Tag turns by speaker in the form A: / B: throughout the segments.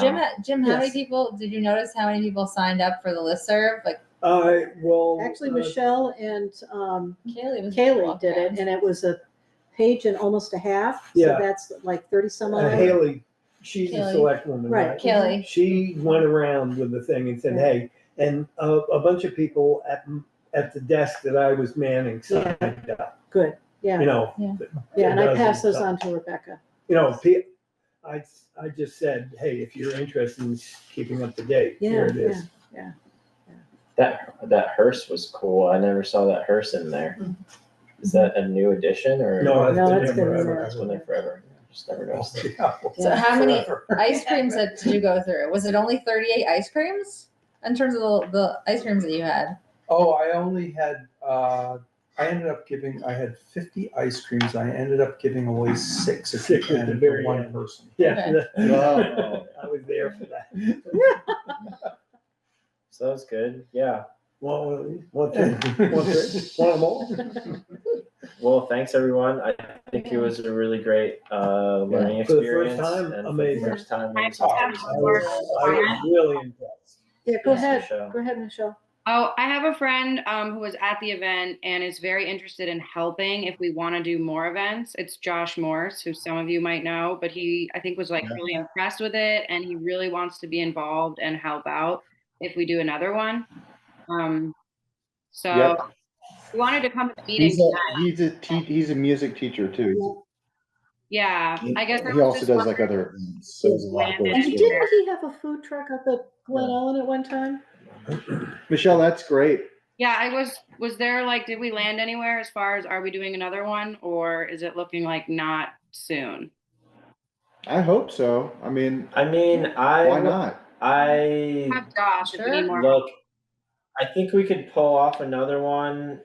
A: Jim, Jim, how many
B: Yes.
A: people, did you notice how many people signed up for the listserv? Like
C: I will.
B: Actually,
C: uh,
B: Michelle and um,
A: Kaylee was.
B: Kaylee did it, and it was a page and almost a half. So
C: Yeah.
B: that's like 30 some
C: uh,
B: odd.
C: Haley, she's a
A: Haley.
C: select woman,
B: Right.
C: right?
A: Kaylee,
C: She went around with the thing and said,
B: Yeah.
C: hey, and a, a bunch of people at, at the desk that I was manning signed up,
B: Good, yeah,
C: you know.
A: Yeah.
B: yeah, and I
C: dozen
B: passed those
C: stuff.
B: on to Rebecca.
C: You know, pe- I, I just said, hey, if you're interested in keeping up to date, here
B: Yeah,
C: it is.
D: That that hearse was cool. I never saw that hearse in there. Is that a new addition or?
C: No,
B: Mm. No,
C: I've
B: that's
C: been
B: been
C: there
B: in
C: forever. Oh,
B: there.
D: That's been there forever. Just never noticed. it.
C: Yeah,
A: so how many
C: forever.
A: ice creams that did you go through? Was it only thirty-eight ice creams? In terms of the, the ice creams that you had?
E: Oh, I only had, uh, I ended up giving, I had fifty ice creams. I ended up giving away six if you
C: Six at the
E: can for
C: very
E: one
C: end.
E: person.
C: Yeah.
D: Wow.
C: I was there for that.
D: So that was good. Yeah.
C: Want one, want one, want more?
D: Well, thanks everyone. I think it was a really great uh, learning
C: Yeah. For the first
D: experience.
C: time,
D: and
C: amazing.
D: For the first time,
F: I
D: it was
C: I was I was really impressed.
B: Yeah, go
D: Thanks,
B: ahead,
D: Michelle.
B: go ahead, Michelle.
F: Oh, I have a friend um, who was at the event and is very interested in helping if we want to do more events. It's Josh Morse, who some of you might know, but he, I think, was like
D: Yeah.
F: really impressed with it and he really wants to be involved and help out if we do another one. Um, so
G: Yep.
F: he wanted to come to the meeting.
G: He's a,
F: tonight.
G: he's a, te- he's a music teacher too.
F: Yeah, I guess. I
G: He
F: was
G: also
F: just
G: does like
F: wondering-
G: other, events, so there's a lot of
F: Yeah.
B: And
G: ways to do it.
B: didn't he have a food truck up at Glen Ellen at one time?
G: Michelle, that's great.
F: Yeah, I was, was there like, did we land anywhere as far as are we doing another one or is it looking like not soon?
G: I hope so. I mean,
D: I mean, I
G: why not?
D: I
F: Have Josh, if we need
A: Sure.
F: more.
D: Look, I think we could pull off another one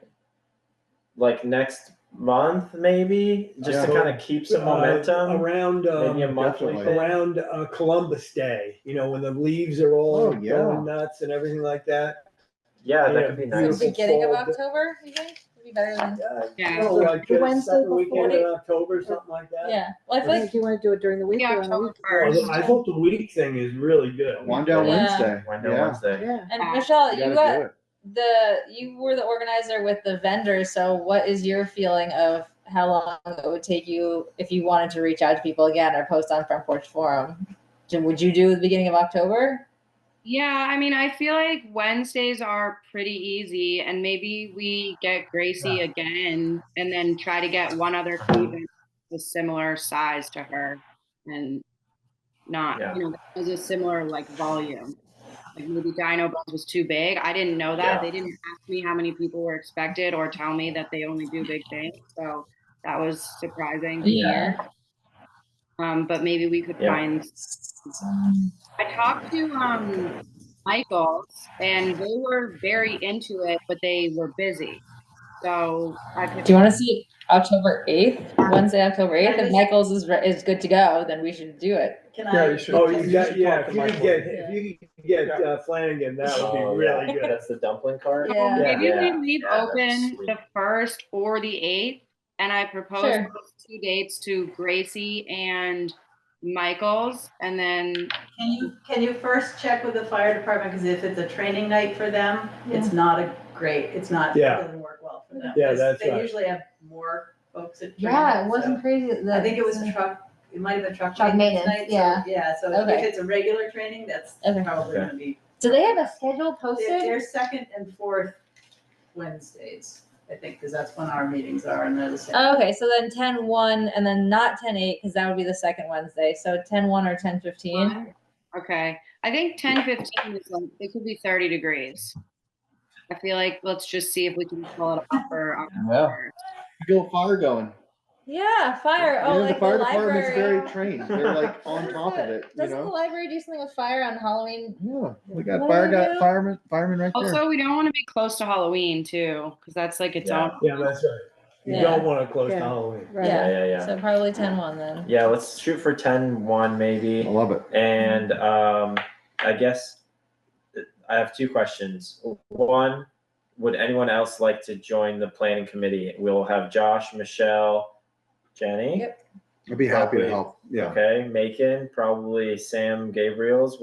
D: like next month, maybe, just to
G: Yeah.
D: kind of keep some
C: Uh,
D: momentum.
C: Around, um,
D: maybe a monthly
G: definitely.
D: thing.
C: around uh, Columbus Day, you know, when the leaves are all
G: Oh, yeah.
C: going nuts and everything like that.
D: Yeah,
C: Yeah.
D: that could be
C: Yeah.
A: So
D: nice.
A: beginning of
C: Fall, but-
A: October, you think? Would be better than,
F: Yeah.
C: Oh, like
B: The
C: the
B: Wednesday
C: second weekend in
B: before-
C: October, something like that.
A: yeah, well, I feel
B: Like,
A: like,
B: do you want to do it during the week
F: Yeah,
B: or on the
F: October
B: weekend?
F: first.
C: Well, I thought the week thing is really good.
G: Wind down
A: Yeah.
G: Wednesday.
D: Window
G: Yeah.
D: Wednesday.
B: Yeah,
A: and
F: Yeah.
A: Michelle,
G: You
A: you
G: gotta do
A: got
G: it.
A: the, you were the organizer with the vendors, so what is your feeling of how long it would take you if you wanted to reach out to people again or post on Front Porch Forum? Jim, Would you do the beginning of October?
F: Yeah, I mean, I feel like Wednesdays are pretty easy, and maybe we get Gracie again and then try to get one other Cleveland a similar size to her and not,
D: Yeah.
F: you know, that has a similar like volume. Like maybe Dino Bones was too big. I didn't know that.
D: Yeah.
F: They didn't ask me how many people were expected or tell me that they only do big things. So that was surprising to hear. Um, but maybe we could
D: Yeah.
F: find I talked to um Michaels and they were very into it, but they were busy. So I could
A: Do you want to see October eighth, Wednesday, October eighth? If Michaels is, re- is good to go, then we should do it.
E: Yeah, you should.
C: Oh, you got,
E: should
C: yeah, if
E: talk to
C: you could
E: Michael.
C: get, if you could get
E: Yeah.
C: uh, Flanagan, that would
D: Oh,
C: be
D: yeah.
C: really good.
D: That's the dumpling cart.
A: Yeah.
F: maybe
D: yeah.
F: we leave
D: Yeah, that's
F: open
D: sweet.
F: the first or the eighth. And I propose
A: Sure.
F: those two dates to Gracie and Michaels and then
H: Can you, can you first check with the fire department, because if it's a training night for them, it's not a great, it's not, it
C: Yeah.
H: doesn't work well for them.
C: Yeah,
H: 'cause
C: that's
H: They
C: right.
H: usually have more folks at training.
A: Yeah, it
H: so-
A: wasn't crazy.
H: I think it was a truck, it might have been truck.
A: Truck
H: maintenance
A: maintenance,
H: night, so- Yeah, so if
A: Okay.
H: it's a regular training, that's
A: Okay.
H: probably
D: Okay.
H: gonna be,
A: Do they have a schedule
H: they're,
A: posted?
H: they're second and fourth Wednesdays, I think, because that's when our meetings are, and they're the same.
A: Oh, okay, so then 10 1 and then not 10 8 because that would be the second Wednesday. So 10 1 or 10 15.
F: okay. I think ten fifteen is like it could be thirty degrees. I feel like let's just see if we can pull it off for October.
G: Go fire going.
A: Yeah, fire.
G: You
A: Oh,
G: know,
A: like the,
G: the fire department's
A: library.
G: very trained. They're like on top of it, you
A: Doesn't the
G: know?
A: library do something with fire on Halloween?
G: Yeah, we got
A: What do
G: fire,
A: we
G: got
A: do?
G: firemen, firemen right there.
F: Also, we don't want to be close to Halloween too, because that's like its
D: Yeah.
F: own.
C: Yeah, that's right. You
A: Yeah.
C: don't want to close to
B: Yeah.
C: Halloween.
B: right.
A: Yeah.
D: Yeah, yeah, yeah.
A: So probably 10 1 then.
D: yeah, let's shoot for 10 1
G: I
D: maybe.
G: love it.
D: And um, I guess I have two questions. One, would anyone else like to join the planning committee? We'll have Josh, Michelle, Jenny.
A: Yep.
G: I'd be happy
D: Probably.
G: to help, yeah.
D: Okay, Macon, probably Sam Gabriel's